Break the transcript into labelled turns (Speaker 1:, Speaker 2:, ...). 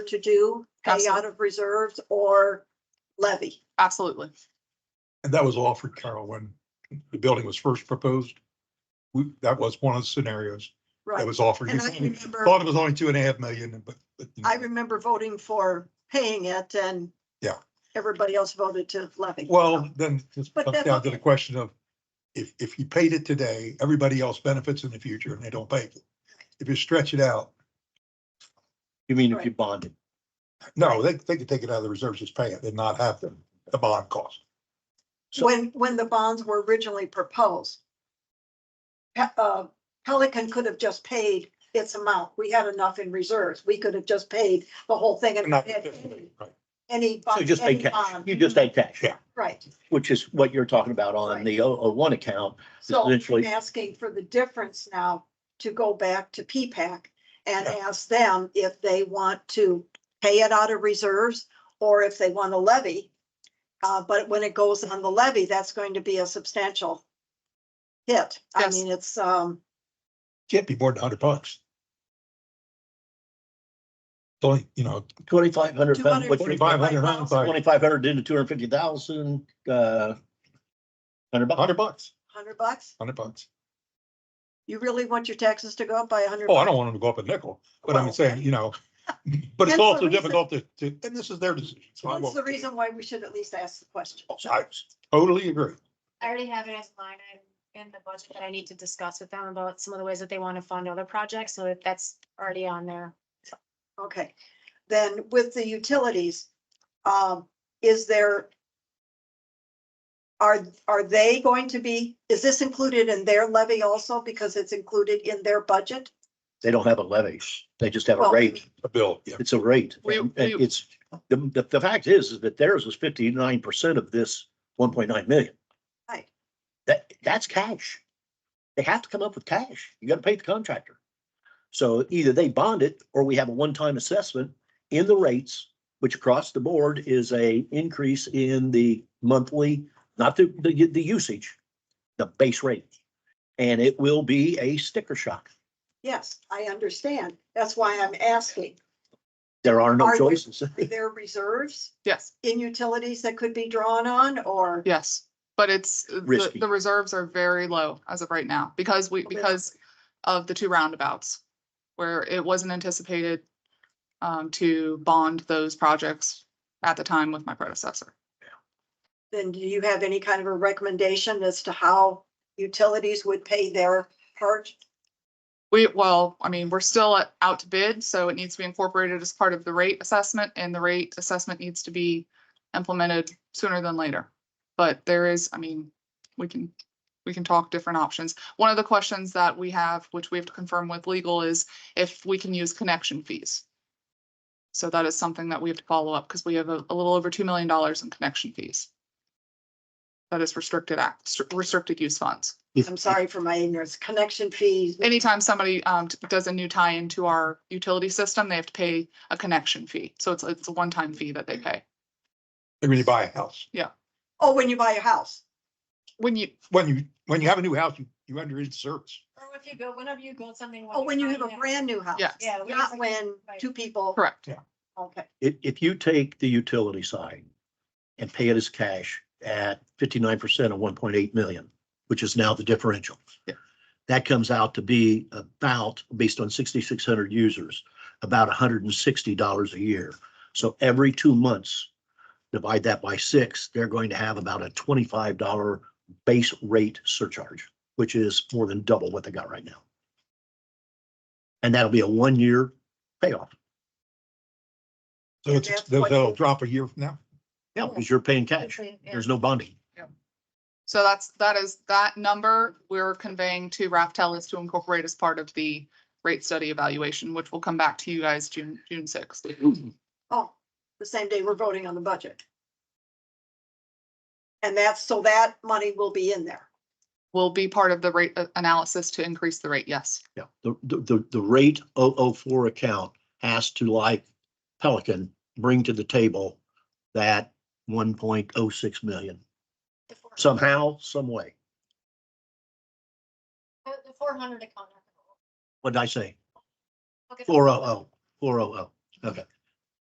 Speaker 1: to do, pay out
Speaker 2: Absolutely.
Speaker 1: of reserves or levy.
Speaker 2: Absolutely.
Speaker 3: And that was offered, Carol, when the building was first proposed. We, that was one of the scenarios that
Speaker 1: Right.
Speaker 3: was offered.
Speaker 1: And I
Speaker 3: You
Speaker 1: remember,
Speaker 3: Thought it was only two and a half million, but. but, you know,
Speaker 1: I remember voting for paying it and
Speaker 3: Yeah.
Speaker 1: everybody else voted to levy.
Speaker 3: Well, then just
Speaker 1: But
Speaker 3: comes
Speaker 1: that-
Speaker 3: down to the question of if, if you paid it today, everybody else benefits in the future and they don't pay it. If you stretch it out,
Speaker 4: You mean if
Speaker 1: Right.
Speaker 4: you bonded?
Speaker 3: no, they, they could take it out of the reserves, just pay it and not have the, the bond cost. so-
Speaker 1: When, when the bonds were originally proposed, Pe- uh, Pelican could have just paid its amount. We had enough in reserves. We could have just paid the whole thing and
Speaker 3: Not
Speaker 1: not
Speaker 3: the
Speaker 1: had
Speaker 3: 50
Speaker 1: any-
Speaker 3: million, right.
Speaker 1: any.
Speaker 4: So
Speaker 1: bond-
Speaker 4: you just pay
Speaker 1: any
Speaker 4: cash.
Speaker 1: bond.
Speaker 4: You just pay cash,
Speaker 3: Yeah.
Speaker 1: Right.
Speaker 4: which is what you're talking about on the O uh, one account.
Speaker 1: So I'm
Speaker 4: Essentially-
Speaker 1: asking for the difference now to go back to P-PAC and ask them if they want to pay it out of reserves or if they want to levy. Uh, but when it goes on the levy, that's going to be a substantial hit. I
Speaker 2: Yes.
Speaker 1: mean, it's, um,
Speaker 3: Can't be more than a hundred bucks. It's Only, you know,
Speaker 4: Twenty-five hundred.
Speaker 3: forty-five hundred,
Speaker 4: Twenty-five hundred into two hundred fifty thousand, uh, hundred bucks.
Speaker 3: hundred bucks,
Speaker 1: hundred bucks.
Speaker 3: hundred bucks.
Speaker 1: You really want your taxes to go up by a hundred?
Speaker 3: Oh, I don't want them to go up a nickel, but I'm
Speaker 1: Well-
Speaker 3: saying, you know, but
Speaker 1: Hence
Speaker 3: it's
Speaker 1: the
Speaker 3: also
Speaker 1: reason-
Speaker 3: difficult to, to, and this is their decision. so I
Speaker 1: That's
Speaker 3: won't-
Speaker 1: the reason why we should at least ask the question.
Speaker 3: I totally agree.
Speaker 5: I already have it as a line item in the budget that I need to discuss with them about some of the ways that they want to fund other projects, so that that's already on there.
Speaker 1: Okay, then with the utilities, um, is there? Are, are they going to be, is this included in their levy also because it's included in their budget?
Speaker 4: They don't have a levy. They just have a
Speaker 1: Well-
Speaker 4: rate.
Speaker 3: A bill, yeah.
Speaker 4: It's a rate.
Speaker 2: We-
Speaker 4: And and
Speaker 2: we-
Speaker 4: it's, the, the, the fact is, is that theirs was fifty-nine percent of this one point nine million.
Speaker 1: Right.
Speaker 4: That, that's cash. They have to come up with cash. You gotta pay the contractor. So either they bond it or we have a one-time assessment in the rates, which across the board is a increase in the monthly, not the, the, the usage, the base rate. And it will be a sticker shock.
Speaker 1: Yes, I understand. That's why I'm asking.
Speaker 4: There are no
Speaker 1: Are-
Speaker 4: choices.
Speaker 1: Are there reserves
Speaker 2: Yes,
Speaker 1: in utilities that could be drawn on or?
Speaker 2: yes. But it's, uh, the,
Speaker 4: Risky.
Speaker 2: the reserves are very low as of right now because we,
Speaker 1: Okay.
Speaker 2: because of the two roundabouts where it wasn't anticipated um, to bond those projects at the time with my predecessor.
Speaker 1: Then do you have any kind of a recommendation as to how utilities would pay their part?
Speaker 2: We, well, I mean, we're still at- out to bid, so it needs to be incorporated as part of the rate assessment and the rate assessment needs to be implemented sooner than later. But there is, I mean, we can, we can talk different options. One of the questions that we have, which we have to confirm with legal, is if we can use connection fees. So that is something that we have to follow up because we have a, a little over $2 million in connection fees. That is restricted act, restricted use funds
Speaker 1: I'm sorry for my ignorance. Connection fees.
Speaker 2: anytime somebody um t- does a new tie into our utility system, they have to pay a connection fee. So it's it's a one-time fee that they pay.
Speaker 3: Like when you buy a house,
Speaker 1: Oh, when you buy a house.
Speaker 2: When you,
Speaker 3: when you, when you have a new house, you, you enter into service.
Speaker 5: Or if you go, whenever you build something.
Speaker 1: Oh, when you have a
Speaker 5: buy it.
Speaker 1: brand new house.
Speaker 2: Yes.
Speaker 5: Yeah.
Speaker 1: Not when two people.
Speaker 2: correct,
Speaker 1: Okay,
Speaker 4: If, if you take the utility side and pay it as cash at fifty-nine percent of one point eight million, which is now the differential.
Speaker 2: Yeah.
Speaker 4: That comes out to be about, based on sixty-six hundred users, about hundred and sixty dollars a year. So every two months, divide that by six, they're going to have about a twenty-five dollar base rate surcharge, which is more than double what they got right now. And that'll be a one-year payoff.
Speaker 3: So it's,
Speaker 1: That's what-
Speaker 3: they'll drop a year from now.
Speaker 4: Yeah, because you're paying cash. There's no bonding.
Speaker 2: so that's, that is, that number we're conveying to Raftel is to incorporate as part of the rate study evaluation, which will come back to you guys June, June sixth.
Speaker 1: oh, the same day we're voting on the budget. And that's, so that money will be in there.
Speaker 2: Will be part of the rate uh, analysis to increase the rate, yes.
Speaker 4: Yeah, the, the, the, the rate 004 account has to, like Pelican, bring to the table that one point oh six million
Speaker 5: The four-
Speaker 4: somehow, some way.
Speaker 5: The the four hundred account.
Speaker 4: What did I say?
Speaker 5: Okay.
Speaker 4: Four oh oh, four oh oh. Okay,